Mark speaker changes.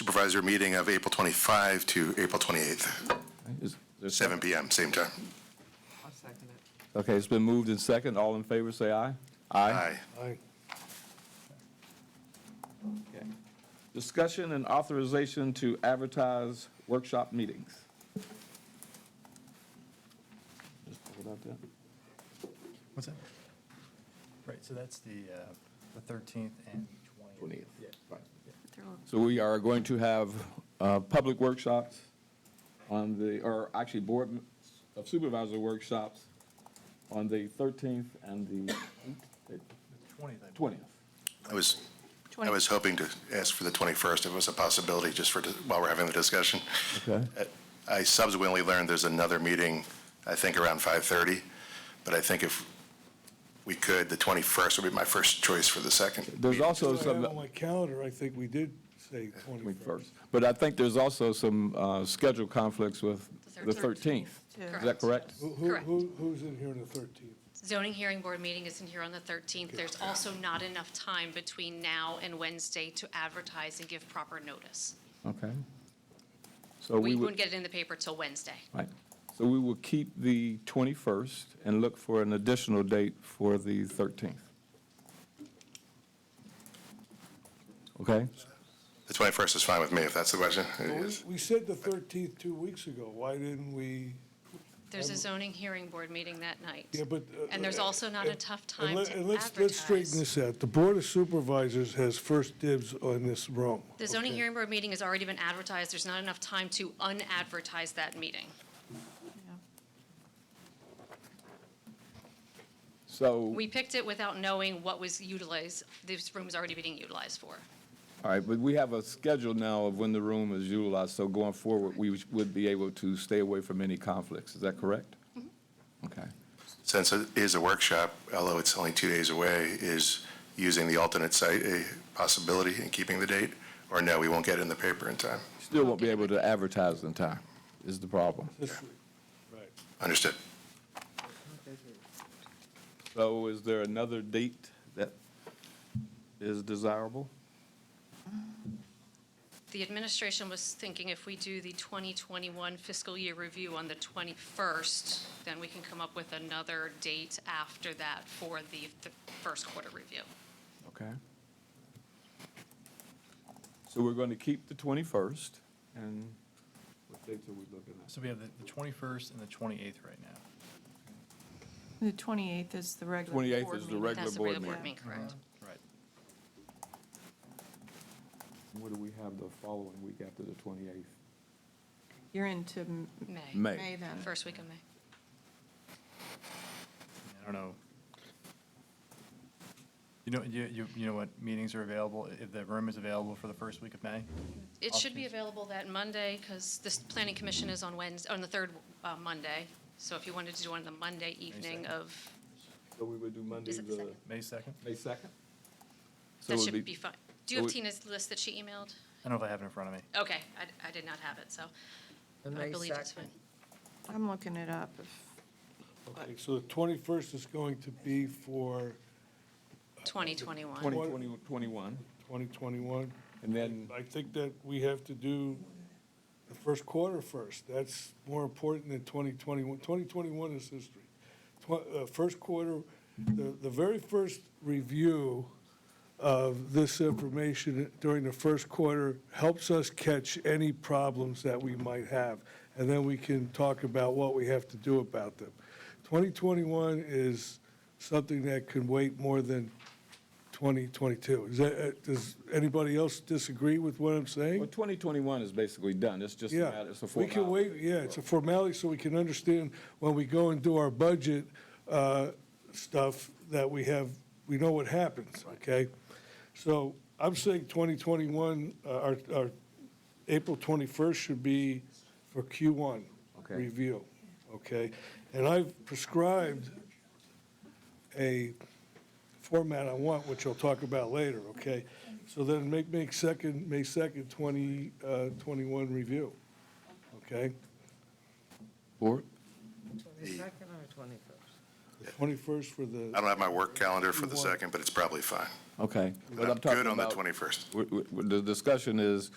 Speaker 1: supervisor meeting of April 25 to April 28th,
Speaker 2: Is there-
Speaker 1: 7 PM, same time.
Speaker 3: I'll second it.
Speaker 2: Okay, it's been moved in second. All in favor, say aye.
Speaker 1: Aye.
Speaker 2: Okay. Discussion and authorization to advertise workshop meetings. Just hold out that.
Speaker 4: What's that? Right, so that's the, uh, the 13th and 20th.
Speaker 2: 20th.
Speaker 4: Yeah.
Speaker 2: Right. So we are going to have uh, public workshops on the, or actually, Board of Supervisor workshops on the 13th and the
Speaker 4: 20th, I
Speaker 2: 20th.
Speaker 4: believe.
Speaker 1: I was, I was hoping to ask for the 21st if it was a possibility, just for, while we're having the discussion.
Speaker 2: Okay.
Speaker 1: I subsequently learned there's another meeting, I think around 5:30, but I think if we could, the 21st would be my first choice for the second.
Speaker 2: There's also
Speaker 5: I had
Speaker 2: some.
Speaker 5: On my calendar, I think we did say 21st.
Speaker 2: 21st. But I think there's also some uh, schedule conflicts with the 13th. Is that correct?
Speaker 5: Who- who-
Speaker 6: Correct.
Speaker 5: who- Who's in here on the 13th?
Speaker 6: Zoning hearing board meeting isn't here on the 13th. There's also not enough time between now and Wednesday to advertise and give proper notice.
Speaker 2: Okay. So
Speaker 6: We
Speaker 2: we
Speaker 6: wouldn't
Speaker 2: would,
Speaker 6: get it in the paper till Wednesday.
Speaker 2: right. So we will keep the 21st and look for an additional date for the 13th. Okay?
Speaker 1: The 21st is fine with me, if that's the question. It
Speaker 5: Well,
Speaker 1: is.
Speaker 5: we- We said the 13th two weeks ago. Why didn't we?
Speaker 6: There's a zoning hearing board meeting that night.
Speaker 5: Um, Yeah, but. uh,
Speaker 6: And there's also not
Speaker 5: uh,
Speaker 6: a tough time
Speaker 5: and let-
Speaker 6: to
Speaker 5: and let's- Let's straighten
Speaker 6: advertise.
Speaker 5: this out. The Board of Supervisors has first dibs on this room.
Speaker 6: The zoning
Speaker 5: okay?
Speaker 6: hearing board meeting has already been advertised. There's not enough time to unadvertise that meeting.
Speaker 2: So, all
Speaker 6: We picked it without knowing what was utilized, this room was already being utilized for.
Speaker 2: right, but we have a schedule now of when the room is utilized, so going forward, we would be able to stay away from any conflicts. Is that correct? Okay.
Speaker 1: Since it is a workshop, although it's only two days away, is using the alternate site a possibility in keeping the date? Or no, we won't get it in the paper in time?
Speaker 2: Still won't be able to advertise in time, is the problem.
Speaker 5: This week. Right.
Speaker 1: Understood.
Speaker 2: So is there another date that is desirable?
Speaker 6: The administration was thinking if we do the 2021 fiscal year review on the 21st, then we can come up with another date after that for the the first quarter review.
Speaker 2: Okay. So we're going to keep the 21st, and what dates are we looking at?
Speaker 4: So we have the the 21st and the 28th right now.
Speaker 7: The 28th is the regular board
Speaker 2: 28th is the
Speaker 7: meeting.
Speaker 2: Regular
Speaker 6: That's the
Speaker 2: board
Speaker 6: regular board
Speaker 7: meeting.
Speaker 6: meeting, correct?
Speaker 4: Uh-huh. Right.
Speaker 2: What do we have the following week after the 28th?
Speaker 7: You're into m-
Speaker 6: May.
Speaker 2: May.
Speaker 7: Mm-hmm. May then.
Speaker 6: First week of May.
Speaker 4: I don't know. You know, you, you you know what meetings are available, if the room is available for the first week of May?
Speaker 6: It should be available that Monday, because this planning commission is on Wednesday, on the third uh, Monday. So if you wanted to do one on the Monday evening
Speaker 4: second.
Speaker 6: of,
Speaker 2: So we would do Monday,
Speaker 6: Is it the
Speaker 2: the
Speaker 6: second?
Speaker 4: May 2nd?
Speaker 2: May 2nd? So it
Speaker 6: that
Speaker 2: would
Speaker 6: should be fine. Do you
Speaker 2: so
Speaker 6: have
Speaker 2: it-
Speaker 6: Tina's list that she emailed?
Speaker 4: I don't know if I have it in front of me.
Speaker 6: Okay, I I did not have it, so I believe it's fine.
Speaker 7: I'm looking it up. if-
Speaker 5: Okay, so the 21st is going to be for
Speaker 6: 2021.
Speaker 2: 2020 21,
Speaker 5: 2021.
Speaker 2: and then,
Speaker 5: I think that we have to do the first quarter first. That's more important than 2021. 2021 is history. Tw- uh, First quarter, the the very first review of this information during the first quarter helps us catch any problems that we might have, and then we can talk about what we have to do about them. 2021 is something that can wait more than 2022. Is that, uh, does anybody else disagree with what I'm
Speaker 2: well,
Speaker 5: saying?
Speaker 2: 2021 is basically done, it's just a matter,
Speaker 5: Yeah.
Speaker 2: it's a
Speaker 5: We
Speaker 2: formality.
Speaker 5: can wait, yeah, it's a formality so we can understand when we go and do our budget uh, stuff that we have, we know what happens, okay? So I'm saying 2021, uh, our, our April 21st should be for Q1
Speaker 2: Okay.
Speaker 5: review, okay? And I've prescribed a format I want, which I'll talk about later, okay? So then make, make second, May 2nd, 2021 review, okay?
Speaker 2: Board?
Speaker 3: 22nd or 21st?
Speaker 5: 21st for
Speaker 1: I
Speaker 5: the,
Speaker 1: don't have my work calendar for the second, but it's probably fine.
Speaker 2: Okay. But I'm
Speaker 1: good
Speaker 2: talking
Speaker 1: on the
Speaker 2: about-
Speaker 1: 21st.
Speaker 2: w- w- The discussion is